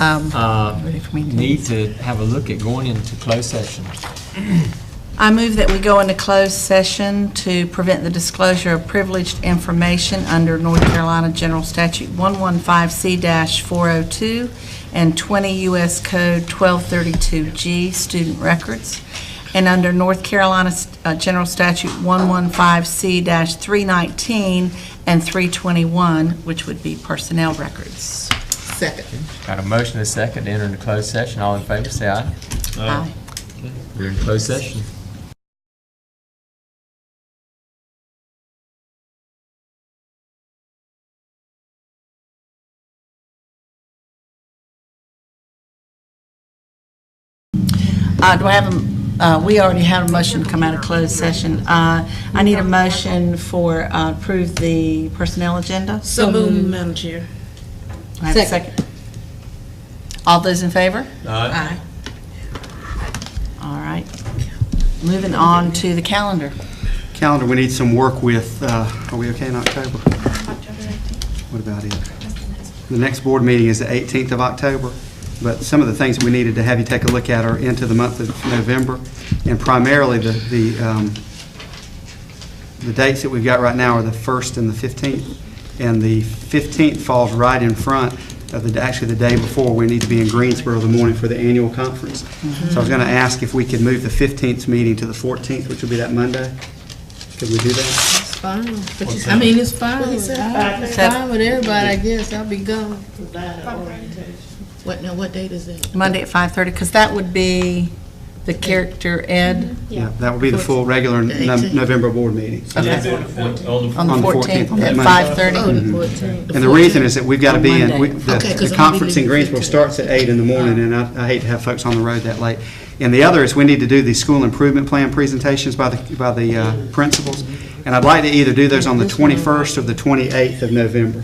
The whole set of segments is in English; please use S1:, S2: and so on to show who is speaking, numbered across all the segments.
S1: um,
S2: uh,
S1: ready for me to do
S2: need
S1: this?
S2: to have a look at going into closed session.
S1: I move that we go into closed session to prevent the disclosure of privileged information under North Carolina General Statute 115C-402 and 20 U.S. Code 1232G, student records, and under North Carolina uh, General Statute 115C-319 and 321, which would be personnel records.
S3: Second.
S2: Got a motion and a second to enter into closed session. All in favor, say aye.
S1: Aye.
S2: We're in closed session.
S1: Uh, Do I have, a- uh, we already have a motion to come out of closed session. Uh, I need a motion for uh, approve the personnel agenda.
S3: So moved, Madam Chair.
S1: Do I have a second? All those in favor?
S2: Aye.
S1: All right. Moving on to the calendar.
S4: calendar, we need some work with, uh, are we okay in October? What about it? The next board meeting is the 18th of October, but some of the things that we needed to have you take a look at are into the month of November, and primarily the, the um, the dates that we've got right now are the 1st and the 15th, and the 15th falls right in front of the, actually the day before, we need to be in Greensboro the morning for the annual conference. So I was going to ask if we could move the 15th 's meeting to the 14th, which would be that Monday. Could we do that?
S3: It's fine, but you, I mean, it's fine. It's fine with everybody, I guess, I'll be gone. What, now, what date is that?
S1: Monday at 5:30, because that would be the character ed.
S4: Yeah. That would be the full regular
S3: The
S4: No-
S3: 18th.
S4: November board meeting. So
S1: Okay. On
S4: On
S1: the 14th,
S4: the 14th, on
S1: at
S4: that Monday.
S1: 5:30.
S3: Oh, the fourteenth.
S4: And the reason is that we've got to be in, we- the
S3: Okay, 'cause
S4: the
S3: I'm
S4: conference in
S3: leaving
S4: Greensboro
S3: at two.
S4: starts at eight in the morning, and I I hate to have folks on the road that late. And the other is, we need to do the school improvement plan presentations by the, by the uh, principals, and I'd like to either do those on the 21st or the 28th of November.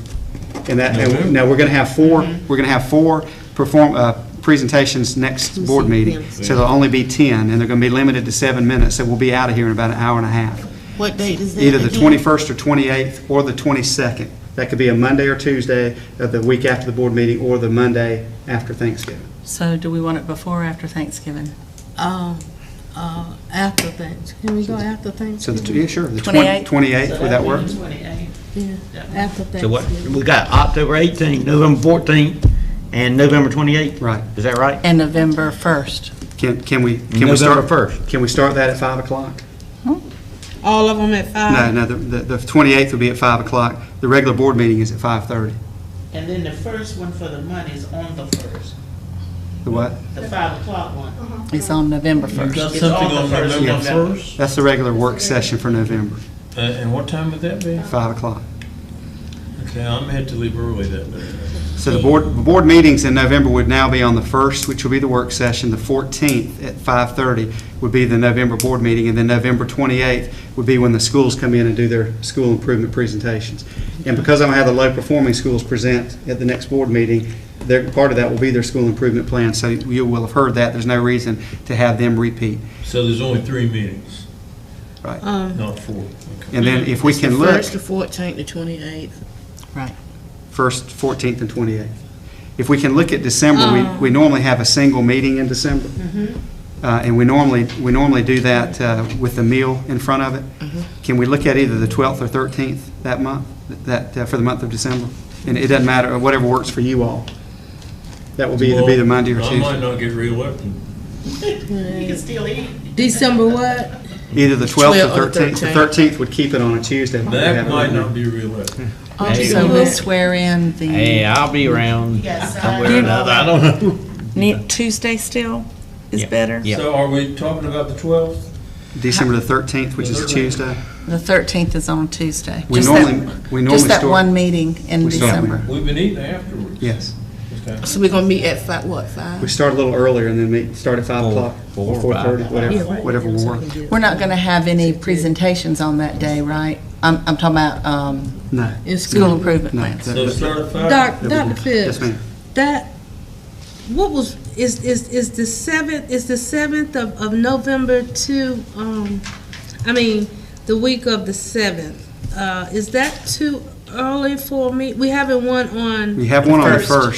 S4: And that, and now, we're going to have four,
S3: Mm-hmm.
S4: we're going to have four perform, uh, presentations next board meeting, so there'll only be 10, and they're going to be limited to seven minutes, so we'll be out of here in about an hour and a half
S3: What date is that?
S4: either the
S3: again?
S4: 21st or 28th or the 22nd. That could be a Monday or Tuesday of the week after the board meeting or the Monday after Thanksgiving.
S1: So do we want it before or after Thanksgiving?
S3: Um, uh, after things, can we go after things?
S4: So the, yeah, sure, the
S1: 28th?
S4: 20 28th, would that work?
S3: Yeah, after things.
S5: So what, we got October 18th, November 14th, and November 28th?
S4: Right.
S5: Is that right?
S1: And November 1st.
S4: Can, can we, can we start?
S5: November 1st.
S4: Can we start that at 5 o'clock?
S3: All of them at
S4: No,
S3: five?
S4: no, the, the the 28th would be at 5 o'clock. The regular board meeting is at 5:30.
S6: And then the first one for the money is on the first,
S4: The what?
S6: the five o'clock one.
S1: It's on November 1st.
S6: It's on the first of November.
S4: That's the regular work session for November,
S7: Uh, And what time would that be?
S4: 5 o'clock.
S7: Okay, I'm had to leave early that day.
S4: So the board, the board meetings in November would now be on the 1st, which will be the work session, the 14th at 5:30 would be the November board meeting, and then November 28th would be when the schools come in and do their school improvement presentations. And because I'm going to have the low-performing schools present at the next board meeting, their, part of that will be their school improvement plan, so you will have heard that, there's no reason to have them repeat.
S7: So there's only three meetings,
S3: Um,
S7: not four. Okay.
S4: And then if we can
S3: the
S4: look,
S3: First, the fourteenth, the twenty-eighth.
S1: Right.
S4: 1st, 14th, and 28th. If we can look at December, we, we normally have a single meeting in December. Uh, And we normally, we normally do that uh, with the meal in front of it. Can we look at either the 12th or 13th that month, that, uh, for the month of December? And it doesn't matter, uh, whatever works for you all. That will be either be the Monday or
S7: Well, I might
S4: Tuesday.
S7: not get reelected.
S6: You can still eat.
S3: December what?
S4: Either the 12th
S3: 12th
S4: or
S3: or
S4: 13th. The 13th would keep it on a Tuesday. but we have
S7: That
S4: it
S7: might
S4: on-
S7: not be reelected.
S1: So we'll swear in the,
S5: I'll be around
S6: Yes, I-
S5: I don't know.
S1: Ne- Tuesday still is
S5: Yeah.
S1: better?
S5: Yeah.
S7: So are we talking about the 12th?
S4: December the 13th, which is a
S7: The 13th.
S4: Tuesday.
S1: The 13th is on Tuesday.
S4: We
S1: Just that-
S4: normally- we normally
S1: Just that
S4: start-
S1: one meeting in
S4: We start-
S1: December.
S7: We've been eating afterwards.
S4: Yes.
S7: Okay.
S3: So we're gonna meet at five, what, five?
S4: We start a little earlier and then meet, start at 5
S5: Four-
S4: o'clock or
S5: four or five.
S4: 4:30, whatever, whatever will work.
S1: We're not going to have any presentations on that day, right? I'm, I'm talking about um,
S4: No.
S3: In
S1: school
S3: school.
S1: improvement
S4: No,
S1: plans.
S4: that-
S7: So start at five?
S8: Doc,
S4: that-
S8: Dr.
S4: Yes,
S8: Phipps,
S4: ma'am.
S8: that, what was, is, is, is the seventh, is the seventh of, of November to, um, I mean, the week of the seventh, uh, is that too early for me? We haven't one on
S4: We have one on the
S1: First.
S4: 1st.